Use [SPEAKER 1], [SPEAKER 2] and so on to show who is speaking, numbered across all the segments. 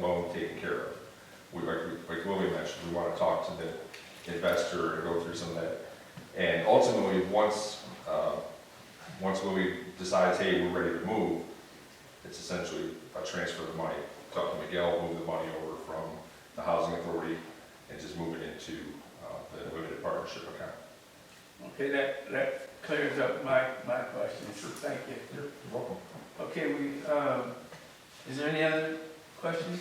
[SPEAKER 1] well taken care of. We, like, like Willie mentioned, we wanna talk to the investor and go through some of that. And ultimately, once, uh, once Willie decides, hey, we're ready to move, it's essentially a transfer of money. Talk to Miguel, move the money over from the housing authority and just move it into, uh, the limited partnership account.
[SPEAKER 2] Okay, that, that clears up my, my questions.
[SPEAKER 1] Sure.
[SPEAKER 2] Thank you.
[SPEAKER 1] You're welcome.
[SPEAKER 2] Okay, we, um, is there any other questions?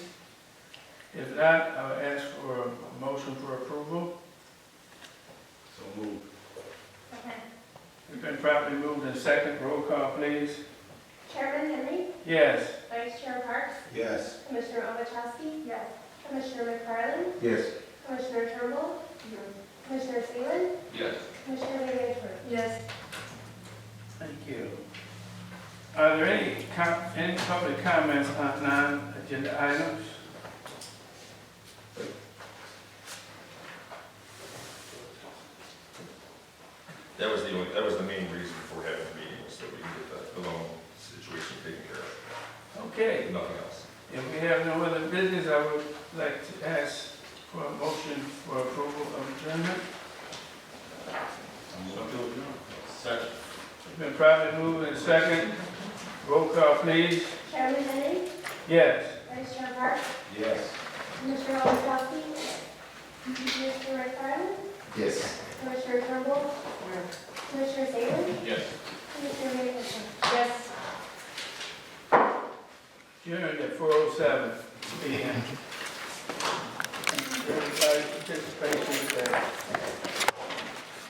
[SPEAKER 2] If not, I'll ask for a motion for approval.
[SPEAKER 3] So move.
[SPEAKER 4] Okay.
[SPEAKER 2] We've been properly moved in second. Roll call, please.
[SPEAKER 4] Chairman Henry,
[SPEAKER 2] Yes.
[SPEAKER 4] Vice Chair Parks,
[SPEAKER 3] Yes.
[SPEAKER 4] Commissioner Ovechowski? Yes. Commissioner McFarland,
[SPEAKER 3] Yes.
[SPEAKER 4] Commissioner Turnbull? Commissioner Salem?
[SPEAKER 3] Yes.
[SPEAKER 4] Commissioner Vancouver? Yes.
[SPEAKER 2] Thank you. Are there any, com- any public comments on non-agenda items?
[SPEAKER 1] That was the, only- that was the main reason for having the meeting, was that we can get the, the loan situation taken care of,
[SPEAKER 2] Okay.
[SPEAKER 1] if nothing else.
[SPEAKER 2] If we have no other business, I would like to ask for a motion for approval of adjournment.
[SPEAKER 3] So move. Second.
[SPEAKER 2] It's been properly moved and second. Roll call, please.
[SPEAKER 4] Chairman Henry,
[SPEAKER 2] Yes.
[SPEAKER 4] Vice Chair Parks,
[SPEAKER 3] Yes.
[SPEAKER 4] Commissioner Ovechowski? Commissioner McFarland,
[SPEAKER 3] Yes.
[SPEAKER 4] Commissioner Turnbull? Commissioner Salem?
[SPEAKER 3] Yes.
[SPEAKER 4] Commissioner Vancouver? Yes.
[SPEAKER 2] Adjourned at four oh seven P M. Thank you, Everybody participating.